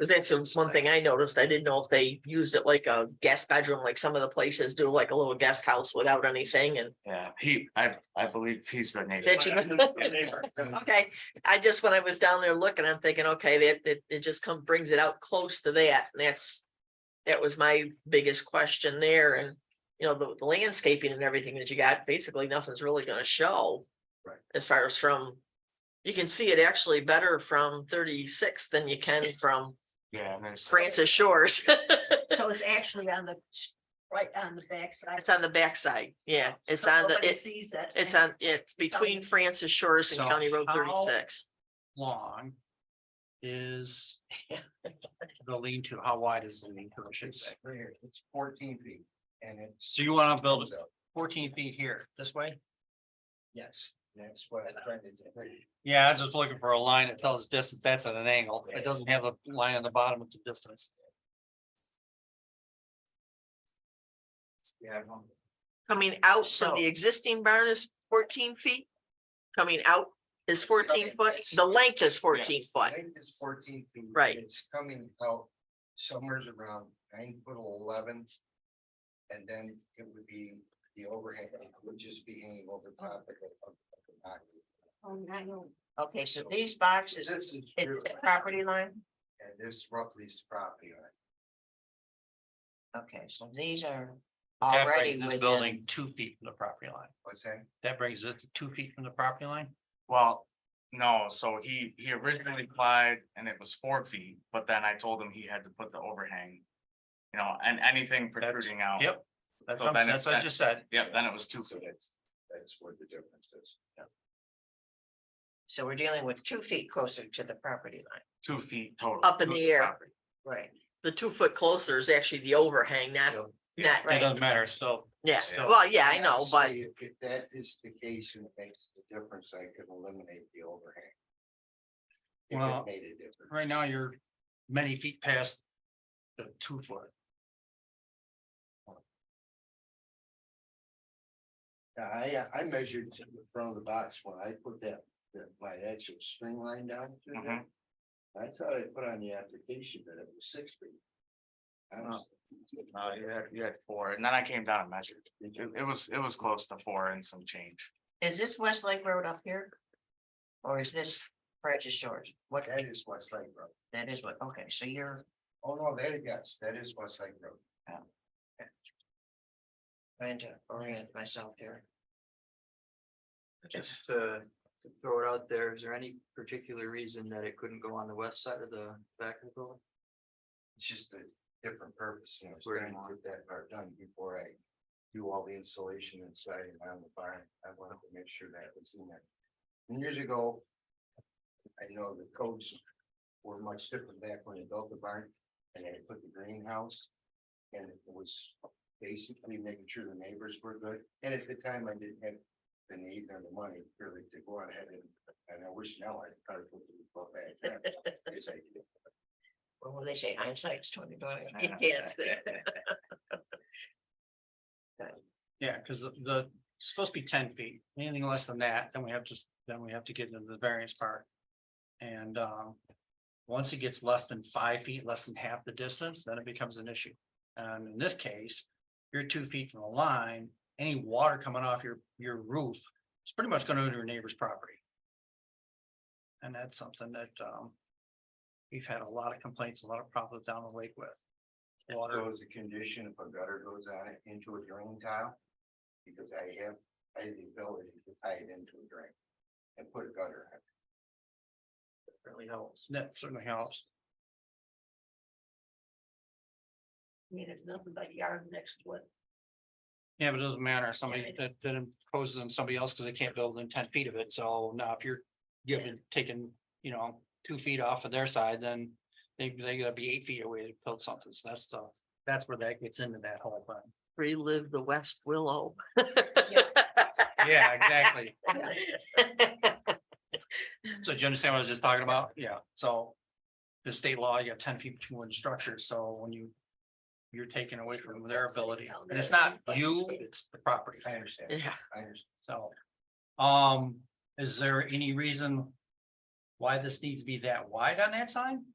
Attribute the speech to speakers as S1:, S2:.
S1: Cause that's the one thing I noticed. I didn't know if they used it like a guest bedroom, like some of the places do like a little guest house without anything and.
S2: Yeah, he, I, I believe he's the neighbor.
S1: Did you- Okay, I just, when I was down there looking, I'm thinking, okay, that, it, it just come, brings it out close to that, and that's. That was my biggest question there, and, you know, the the landscaping and everything that you got, basically nothing's really gonna show.
S2: Right.
S1: As far as from, you can see it actually better from thirty-six than you can from
S2: Yeah, and there's,
S1: Francis Shores.
S3: So it's actually on the, right on the backside.
S1: It's on the backside, yeah, it's on the,
S3: Nobody
S1: it,
S3: sees it.
S1: it's on, it's between Francis Shores
S4: So
S1: and County Road
S4: how-
S1: thirty-six.
S4: long is the lean to, how wide is the lean to, I should say?
S5: It's fourteen feet and it's.
S4: So you wanna build it fourteen feet here, this way?
S5: Yes, that's what I'm trying to do.
S4: Yeah, I'm just looking for a line that tells distance, that's at an angle, it doesn't have a line on the bottom of the distance.
S2: yeah, I don't-
S1: Coming out from
S4: So-
S1: the existing barn is fourteen feet. Coming out is
S5: It's
S1: fourteen
S5: coming-
S1: foot,
S5: it's-
S1: the length is fourteen foot,
S5: Length is fourteen feet. and
S1: Right.
S5: It's coming out somewhere's around nine foot eleven. And then it would be the overhang, it would just be hanging over top of it. of- of the box.
S6: Okay, so these boxes,
S5: This is true,
S6: it's the property line?
S5: and this roughly is property. line.
S6: Okay, so these are
S4: That
S6: already
S4: brings this
S6: within,
S4: building two feet from the property line,
S5: What's that?
S4: that brings it to two feet from the property line?
S2: Well, no, so he, he originally applied and it was four feet, but then I told him he had to put the overhang. You know, and anything
S4: That's-
S2: protruding out.
S4: Yep, that's
S2: So
S4: what I'm-
S2: then it-
S4: that's what I just said,
S2: Yep, then it was two
S5: So
S2: feet.
S5: that's, that's where the difference is.
S6: so we're dealing with two feet closer to the property line,
S2: two feet total.
S1: Up in
S2: to
S1: the air.
S2: property.
S6: right?
S1: the two foot closer is actually the overhang, not,
S5: Yeah.
S1: not,
S4: it
S6: Right,
S4: doesn't matter, so.
S1: yeah,
S4: So-
S1: well, yeah, I know, but
S5: Obviously, If if that is the case and it makes the difference, I could eliminate the overhang. If
S4: Well,
S5: it made a difference.
S4: right now you're many feet past the two foot.
S5: Yeah, I, I measured to the front of the box when I put that, that my actual string line down to that. I thought I put on the application that it was six feet. I was-
S2: No, Uh, you had, you had four, and then I came down and measured. It, it was, it was close to four and some change.
S6: Is this Westlake Road up here? Or is this Francis Shores? What,
S5: That is Westlake Road.
S6: that is what, okay, so you're,
S5: Oh, no, that is, yes, that is Westlake Road.
S6: trying Oh. to orient myself here.
S7: Just to to throw it out there, is there any particular reason that it couldn't go on the west side of the back of the building?
S5: It's just a different purpose. and I was
S7: Where
S5: trying
S7: you
S5: to
S7: want.
S5: get that part done before I do all the installation inside and around the barn. I wanted to make sure that was in there. And Years ago, I know the codes were much different back when they built the barn and they put the greenhouse. And it was basically making sure the neighbors were good. And at the time, I didn't have the need or the money really to go ahead and, and I wish now I'd probably put the book back. then, because I-
S6: What will they say? Hindsight's twenty dollars.
S4: Yeah, because the, it's supposed to be ten feet, anything less than that, then we have to, then we have to get into the variance part. And um, once it gets less than five feet, less than half the distance, then it becomes an issue. And in this case, you're two feet from the line, any water coming off your, your roof, it's pretty much going to your neighbor's property. And that's something that um, we've had a lot of complaints, a lot of problems down the lake with. Water,
S5: So is a condition if a gutter goes on it into a drain tile? Because I have, I have the ability to tie it into a drain and put a gutter in. It really helps.
S4: that certainly helps.
S3: I mean, it's nothing but yard next to it.
S4: Yeah, but it doesn't matter, somebody that that imposes on somebody else because they can't build within ten feet of it, so now if you're giving, taking, you know, two feet off of their side, then. They they gotta be eight feet away to build something, so that's the, that's where that gets into that whole thing.
S1: relive the West Willow.
S4: Yeah, exactly. So do you understand what I was just talking about? Yeah, so. The state law, you have ten feet between one structure, so when you. You're taking away from their ability, and it's not you, it's the property,
S5: I understand,
S1: Yeah,
S5: I understand.
S4: so. Um, is there any reason? Why this needs to be that wide on that sign?